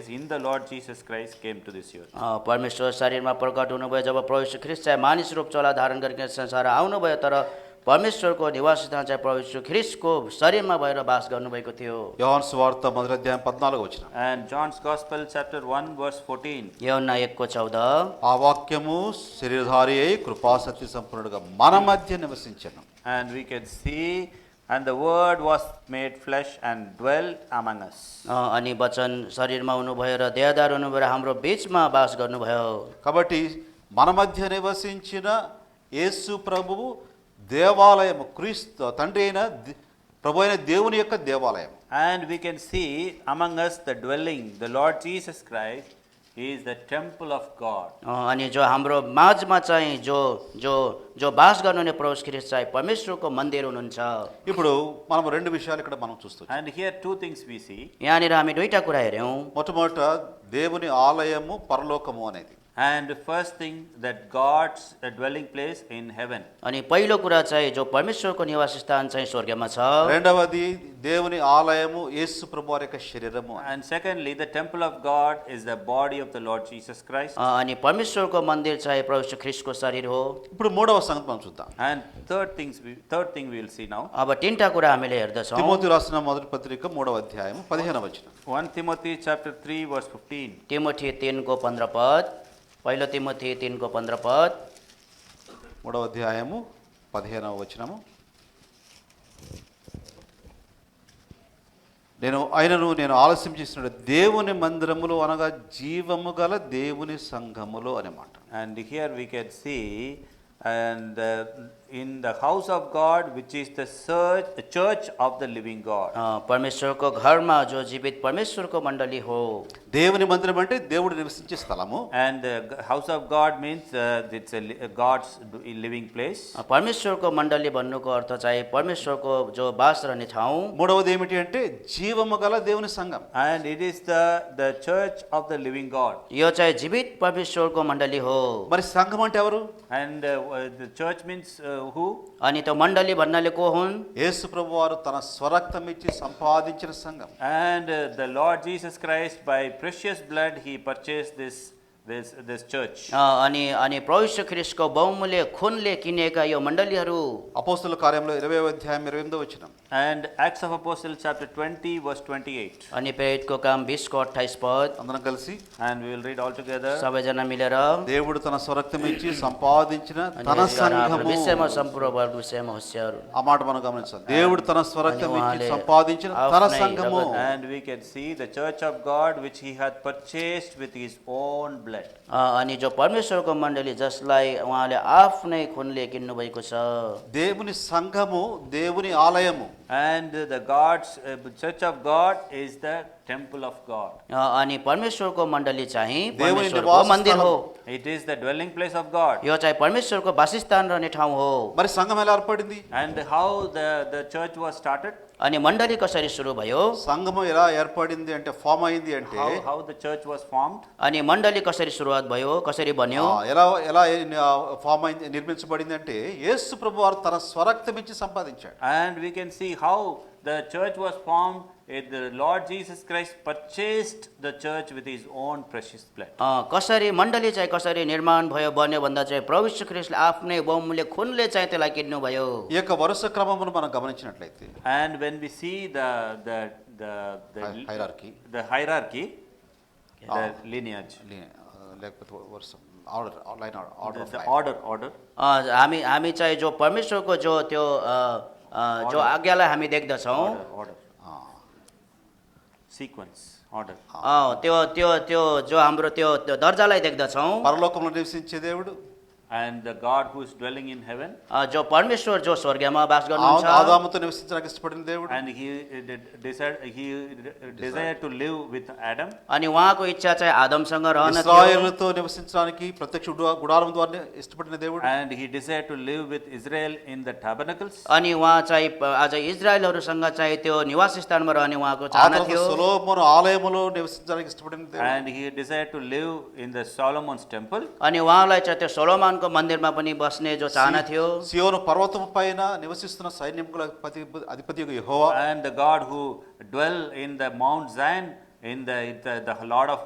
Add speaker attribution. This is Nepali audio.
Speaker 1: is in the Lord Jesus Christ came to this earth.
Speaker 2: अ, परमेश्वर शरीरमा प्रकट हुनुभयो जब प्रवेश ख्रिस्ट चाहिँ मानिस रूप चला धारण गरिकन संसार आउनुभयो तर परमेश्वरको निवास स्थान चाहिँ प्रवेश ख्रिस्टको शरीरमा भएर बास गर्नुभएको थियो
Speaker 3: యోహాన్ సువార్త మొదటి అధ్యాయం పద్నాలుగు వచ్చిన
Speaker 1: And John's Gospel, chapter 1, verse 14.
Speaker 2: यौना एकको चौध
Speaker 3: ఆ వాక్యము శరీరధారి అయి కృపాసత్య సంపూర్ణుడుగా మన మధ్య నివసించను
Speaker 1: And we can see, and the Word was made flesh and dwelt among us.
Speaker 2: अ, अनि वचन शरीरमा हुनुभयो र देहदार हुनुभयो र हाम्रो बिचमा बास गर्नुभयो
Speaker 3: కాబట్టి మన మధ్య నివసించిన యేసు ప్రభువు దేవాలయము క్రీస్తు తండ్రి అయిన ది- ప్రభు అయిన దేవుని యొక్క దేవాలయం
Speaker 1: And we can see among us the dwelling, the Lord Jesus Christ is the temple of God.
Speaker 2: अ, अनि जो हाम्रो माझमा चाहिँ जो जो जो बास गर्नुहुने प्रवेश ख्रिस्ट चाहिँ परमेश्वरको मन्दिर हुनुहुन्छ
Speaker 3: ఇప్పుడు మనం రెండు విషయాలు ఇక్కడ మనం చూస్తాం
Speaker 1: And here two things we see.
Speaker 2: यहाँनिर हामी दुईवटा कुरा हेऱ्यौँ
Speaker 3: మొట్టమొదట దేవుని ఆలయము పరలోకము అనేది
Speaker 1: And the first thing that God's uh, dwelling place in heaven.
Speaker 2: अनि पहिलो कुरा चाहिँ जो परमेश्वरको निवास स्थान चाहिँ स्वर्गमा छ
Speaker 3: రెండవది దేవుని ఆలయము యేసు ప్రభు వారి యొక్క శరీరము అని.
Speaker 1: And secondly, the temple of God is the body of the Lord Jesus Christ.
Speaker 2: अ, अनि परमेश्वरको मन्दिर चाहिँ प्रभु यीशु ख्रिस्टको शरीर हो
Speaker 3: ఇప్పుడు మూడవ సంగతి మనం చూద్దాం
Speaker 1: And third things, we, third thing we will see now.
Speaker 2: अब तिनवटा कुरा हामीले हेर्दछौँ
Speaker 3: తిమోతి రాసిన మొదటి పత్రిక మూడవ అధ్యాయం పదిహేను వచ్చిన
Speaker 1: 1 Timothy chapter 3 verse 15.
Speaker 2: तिमोथी तिनको पन्ध्र पद पहिलो तिमोथी तिनको पन्ध्र पद
Speaker 3: మూడవ అధ్యాయము పదిహేనవ వచనము నేను ఆయనను నేను ఆలస్యం చేసిన దేవుని మందిరములో అనగా జీవము గల దేవుని సంఘములో అనమాట
Speaker 1: And here we can see, and uh, in the house of God, which is the church, the church of the living God.
Speaker 2: अ, परमेश्वरको घरमा जो जीवित परमेश्वरको मण्डली हो
Speaker 3: దేవుని మందిరం అంటే దేవుడు నివసించే స్థలము
Speaker 1: And the g- house of God means uh, it's a li- a God's d- living place.
Speaker 2: अ, परमेश्वरको मण्डली भन्नुको अर्थ चाहिँ परमेश्वरको जो बास रहने ठाउँ
Speaker 3: మూడవది ఏమిటి అంటే జీవము గల దేవుని సంఘం
Speaker 1: And it is the, the church of the living God.
Speaker 2: यो चाहिँ जीवित परमेश्वरको मण्डली हो
Speaker 3: మరి సంఘం అంటే ఎవరు
Speaker 1: And uh, w- the church means uh, who?
Speaker 2: अनि त्यो मण्डली भन्नाले को हुन्
Speaker 3: యేసు ప్రభు వారు తన స్వరక్తం ఇచ్చి సంపాదించిన సంఘం
Speaker 1: And uh, the Lord Jesus Christ, by precious blood, he purchased this, this, this church.
Speaker 2: अ, अनि अनि प्रविश्व ख्रिस्टको बहुमूल्य खुनले किनेका यो मण्डलीहरू
Speaker 3: అపోస్తుల కార్యంలో ఇరవై అధ్యాయం ఇరవై ఎనిమిదో వచ్చినాం
Speaker 1: And Acts of Apostles chapter 20 verse 28.
Speaker 2: अनि प्रेरितको काम बिसको अठाइस पद
Speaker 3: అందరం కలిసి
Speaker 1: And we will read all together.
Speaker 2: सबैजना मिलेर
Speaker 3: దేవుడు తన స్వరక్తం ఇచ్చి సంపాదించిన తన
Speaker 2: आफ्नो
Speaker 3: సంఘము
Speaker 2: विषयमा सम्पूर्ण वर्ग विषयमा होस्याहरू
Speaker 3: ఆ మాట మనం గమనించాలి దేవుడు తన స్వరక్తం
Speaker 2: అని
Speaker 3: ఇచ్చి
Speaker 2: వాళ్ళే
Speaker 3: సంపాదించిన తన
Speaker 2: ఆఫ్లైన్
Speaker 3: సంఘము
Speaker 2: జగత్
Speaker 1: And we can see the church of God which he had purchased with his own blood.
Speaker 2: अ, अनि जो परमेश्वरको मण्डली जसलाई उहाँले आफ्नै खुनले किन्नुभएको छ
Speaker 3: దేవుని సంఘము దేవుని ఆలయము
Speaker 1: And the God's, uh, church of God is the temple of God.
Speaker 2: अ, अनि परमेश्वरको मण्डली चाहिँ
Speaker 3: देवनी
Speaker 2: परमेश्वरको
Speaker 3: निवास
Speaker 2: मन्दिर हो
Speaker 1: It is the dwelling place of God.
Speaker 2: यो चाहिँ परमेश्वरको वासस्थान रहने ठाउँ हो
Speaker 3: మరి సంఘం ఎలా ఏర్పడింది
Speaker 1: And how the, the church was started,
Speaker 2: अनि मण्डली कसरी सुरु भयो
Speaker 3: సంఘము ఎలా ఏర్పడింది అంటే ఫామ్ అయింది అంటే
Speaker 1: how, how the church was formed,
Speaker 2: अनि मण्डली कसरी सुरुवात भयो कसरी
Speaker 3: ఆ,
Speaker 2: बन्यो
Speaker 3: ఎలా ఎలా ఫామ్ అయింది నిర్మించబడింది అంటే యేసు ప్రభు వారు తన స్వరక్తం ఇచ్చి సంపాదించాడు
Speaker 1: and we can see how the church was formed. It, the Lord Jesus Christ purchased the church with his own precious blood.
Speaker 2: अ, कसरी मण्डली चाहिँ कसरी निर्माण भयो बन्यो भन्दा चाहिँ प्रभु यीशु ख्रिस्टले आफ्नै बहुमूल्य खुनले चाहिँ त्यसलाई किन्नुभयो
Speaker 3: ఈ యొక్క వరుస క్రమమును మనం గమనించినట్లయితే
Speaker 1: And when we see the the the the,
Speaker 3: Hi- hierarchy.
Speaker 1: the hierarchy, the lineage,
Speaker 3: లే- లేకపోతే వరుస order line order
Speaker 1: the,
Speaker 3: of
Speaker 1: the order, order.
Speaker 2: अ, हामी हामी चाहिँ जो परमेश्वरको जो त्यो अ, अ, जो आज्ञालाई हामी देख्दछौँ
Speaker 1: order, order, sequence, order.
Speaker 2: त्यो त्यो त्यो जो हाम्रो त्यो त्यो दर्जालाई देख्दछौँ
Speaker 3: పరలోకంలో నివసించే దేవుడు
Speaker 1: And the God who is dwelling in heaven,
Speaker 2: अ, जो परमेश्वर जो स्वर्गमा बास
Speaker 3: ఆ-
Speaker 2: गर्नुहुन्छ
Speaker 3: ఆదాముతో నివసించడానికి ఇష్టపడిన దేవుడు
Speaker 1: and he uh, did- desired, he uh, desired to live with Adam,
Speaker 2: अनि उहाँको इच्छा चाहिँ आदमसँग रहन थियो
Speaker 3: ఇస్రాయేలుతో నివసించడానికి ప్రత్యక్ష గుడా- గుడారం ద్వారా ఇష్టపడిన దేవుడు
Speaker 1: and he desired to live with Israel in the tabernacles.
Speaker 2: अनि उहाँ चाहिँ प- आज इजरायलहरूसँग चाहिँ त्यो निवास स्थानमा रहने उहाँको
Speaker 3: ఆ
Speaker 2: चाहना
Speaker 3: తర్వాత
Speaker 2: थियो
Speaker 3: సొలోమోను ఆలయములో నివసించడానికి ఇష్టపడిన దేవుడు
Speaker 1: And he desired to live in the Solomon's temple,
Speaker 2: अनि उहाँलाई चाहिँ त्यो सोलोमानको मन्दिरमा पनि बस्ने जो चाहना थियो
Speaker 3: సియోను పర్వతము పైన నివసిస్తున్న సైన్యముల అధిపతి అధిపతి యెహోవా
Speaker 1: and the God who dwell in the Mount Zion, in the, the, the Lord of